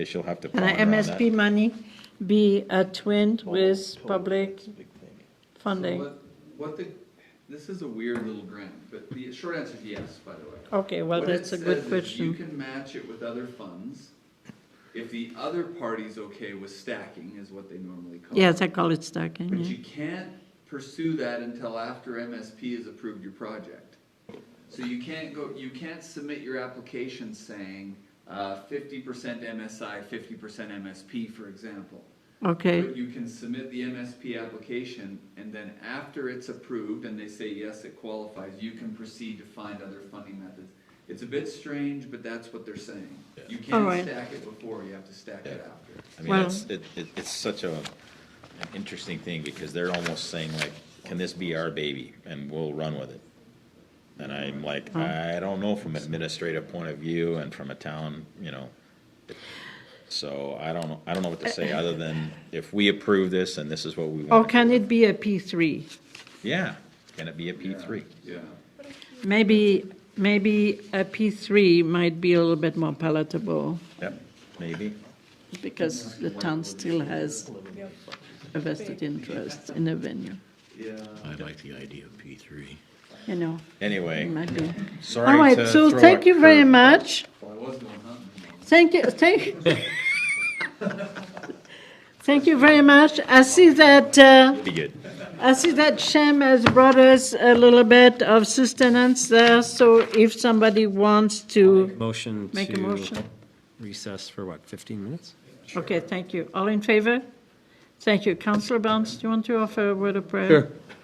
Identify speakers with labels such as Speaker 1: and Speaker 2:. Speaker 1: She'll have to.
Speaker 2: Can
Speaker 1: ponder on that.
Speaker 2: MSP money be a twin with public funding?
Speaker 3: What, what the, this is a weird little grant, but the short answer is yes, by the way.
Speaker 2: Okay, well,
Speaker 3: What it
Speaker 2: that's a good
Speaker 3: says is You
Speaker 2: question.
Speaker 3: can match it with other funds if the other party's okay with stacking is what they normally call it.
Speaker 2: Yes, I call it stacking,
Speaker 3: But
Speaker 2: yeah.
Speaker 3: you can't pursue that until after MSP has approved your project. So you can't go, you can't submit your application saying, uh, fifty percent MSI, fifty percent MSP, for example.
Speaker 2: Okay,
Speaker 3: But you can submit the MSP application, and then after it's approved and they say, yes, it qualifies, you can proceed to find other funding methods. It's a bit strange, but that's what they're saying. You
Speaker 2: All
Speaker 3: can't
Speaker 2: right.
Speaker 3: stack it before, you have to stack it after.
Speaker 1: I mean,
Speaker 2: Well-
Speaker 1: it's, it, it- it's such a, an interesting thing, because they're almost saying like, can this be our baby, and we'll run with it? And I'm like, I don't know from an administrative point of view and from a town, you know, so I don't, know- I don't know what to say, other than if we approve this and this is what we
Speaker 2: or
Speaker 1: want.
Speaker 2: can it be a P3?
Speaker 1: Yeah, can it be a P three?
Speaker 3: Yeah,
Speaker 2: Maybe, maybe a P3 might be a little bit more palatable,
Speaker 1: Yep, maybe.
Speaker 2: because the town still has a vested interest in the venue,
Speaker 3: yeah.
Speaker 4: I like the idea of P three.
Speaker 2: you know, it
Speaker 1: Anyway,
Speaker 2: might be.
Speaker 1: sorry
Speaker 2: All right,
Speaker 1: to
Speaker 2: so
Speaker 1: throw
Speaker 2: thank
Speaker 1: a
Speaker 2: you very
Speaker 1: curve.
Speaker 2: much.
Speaker 3: Well, I was going hunting.
Speaker 2: Thank you, thank. Thank you very much. I see that, uh,
Speaker 1: Be good.
Speaker 2: I see that Shem has brought us a little bit of sustenance there, so if somebody wants to
Speaker 5: Motion
Speaker 2: make a
Speaker 5: to
Speaker 2: motion.
Speaker 5: recess for what, 15 minutes?
Speaker 2: Okay, thank you. All in favor? Thank you. Councillor Barnes, do you want to offer a word of prayer?